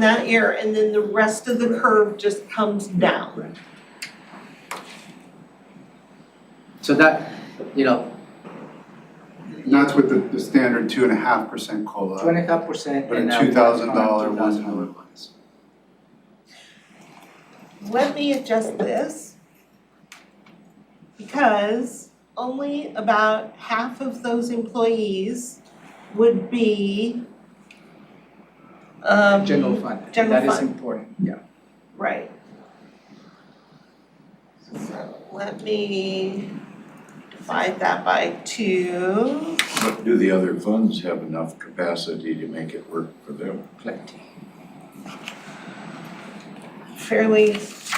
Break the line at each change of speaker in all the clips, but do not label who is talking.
that air, and then the rest of the curve just comes down.
So that, you know,
And that's with the, the standard two and a half percent COLA,
twenty five percent
but a
and
two thousand dollar one time bonus.
Let me adjust this. Because only about half of those employees would be um,
General fund,
General
that is
fund.
important, yeah.
Right. So let me divide that by two.
But do the other funds have enough capacity to make it work for them?
Plenty.
Fairly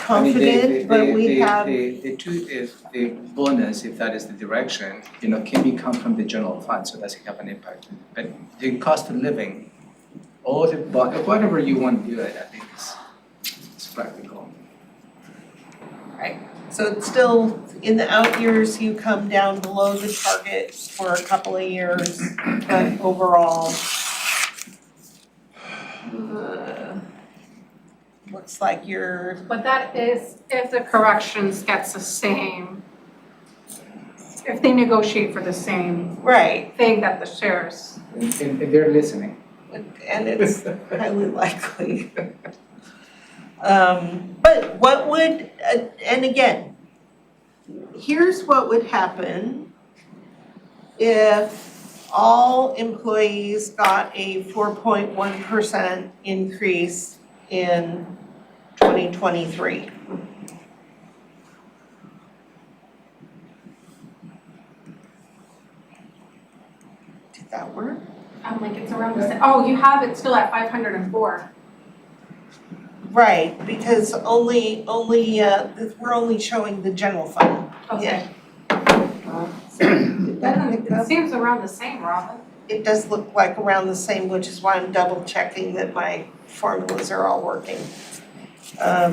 I mean, they- they-
confident, but
they-
we
they-
have,
they- The two is, the bonus, if that is the direction, you know, can be come from the general fund, so that's have an impact. But the cost of living, all the, bo- whatever you want to do it, I think is, it's practical.
so it's still, in the out years, you come down below the target for a couple of years, but overall. uh, Looks like you're
But that is if the corrections gets the same, if they negotiate for the same
right,
thing that the shares.
And, and and they're listening.
and it's highly likely. Um, but what would, uh, and again, here's what would happen if all employees got a four point one percent increase in twenty twenty-three. Did that work?
I'm like, it's around the same, oh, you have it still at five hundred and four.
Right, because only, only, uh, we're only showing the general fund.
Okay.
Uh,
Did that
Doesn't-
pick
It
up?
seems around the same, Robin.
It does look like around the same, which is why I'm double checking that my formulas are all working. Um,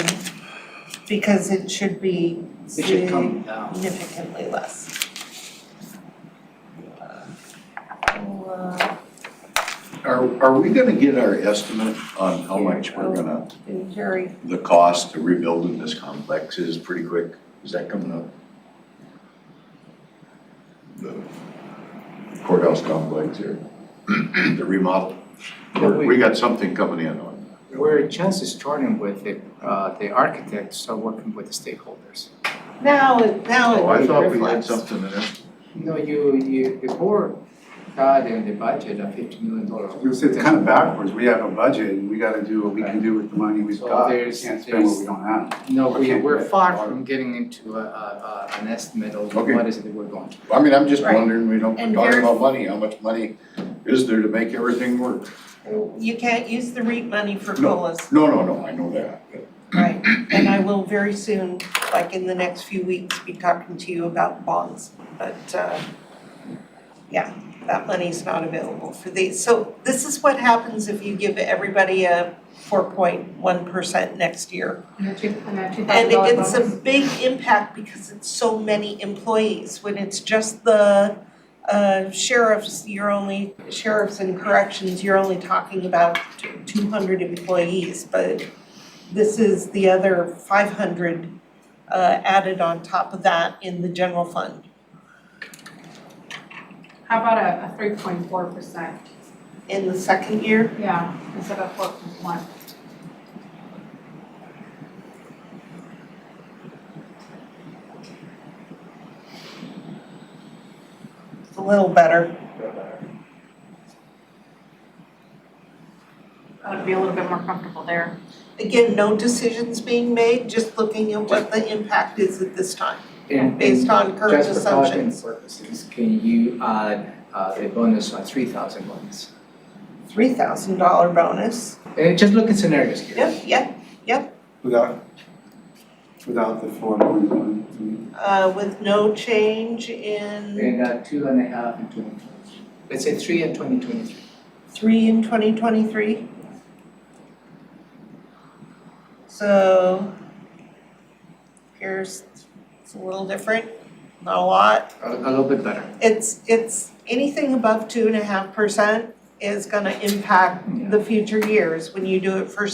because it should be
It should come down.
significantly less. Well, uh,
Are, are we gonna get our estimate on how much we're gonna,
been very,
the cost of rebuilding this complex is pretty quick? Is that coming up? The courthouse complex here, the remodel? Or We got something coming in on
We're just starting with the, uh, the architects, so working with the stakeholders.
now it,
that.
now it
Oh, I thought we had
reflects.
something in it.
No, you, you, the board had in the budget a fifty million dollar.
It was- It's kind of backwards, we have a budget and we gotta do what we can do with the money we've
So
got, we can't
there's-
spend what we don't have.
No, we,
Okay.
we're far from getting into a, a, a, an estimate of
Okay.
what is it that we're going to.
I mean, I'm just
Right.
wondering, we don't,
And
we're talking
very-
about money, how much money is there to make everything work?
You can't use the REIT money for
No.
colas.
No, no, no, I know that.
Right, and I will very soon, like in the next few weeks, be talking to you about bonds, but uh yeah, that money's not available for these. So this is what happens if you give everybody a four point one percent next year.
And the two, and the two
And
thousand dollar
it's
bonus.
a big impact because it's so many employees. When it's just the uh sheriffs, you're only, sheriffs and corrections, you're only talking about two hundred employees, but this is the other five hundred uh added on top of that in the general fund.
How about a, a three point four percent?
In the second year,
Yeah, instead of four point one.
it's a little better.
I would be a little bit more comfortable there.
Again, no decisions being made, just looking at what the impact is at this time,
And-
based
and
on current assumptions.
Just for budgeting purposes, can you add, uh, the bonus on three thousand bonus?
Three thousand dollar bonus.
And just look at scenarios here.
Yep, yep,
Without, without the four point one.
uh, with no change in
And, uh, two and a half and two and let's say three and twenty twenty-three.
three in twenty twenty-three. So here's, it's a little different, not a lot.
A, a little bit better.
It's, it's, anything above two and a half percent is gonna impact the future years when you do it for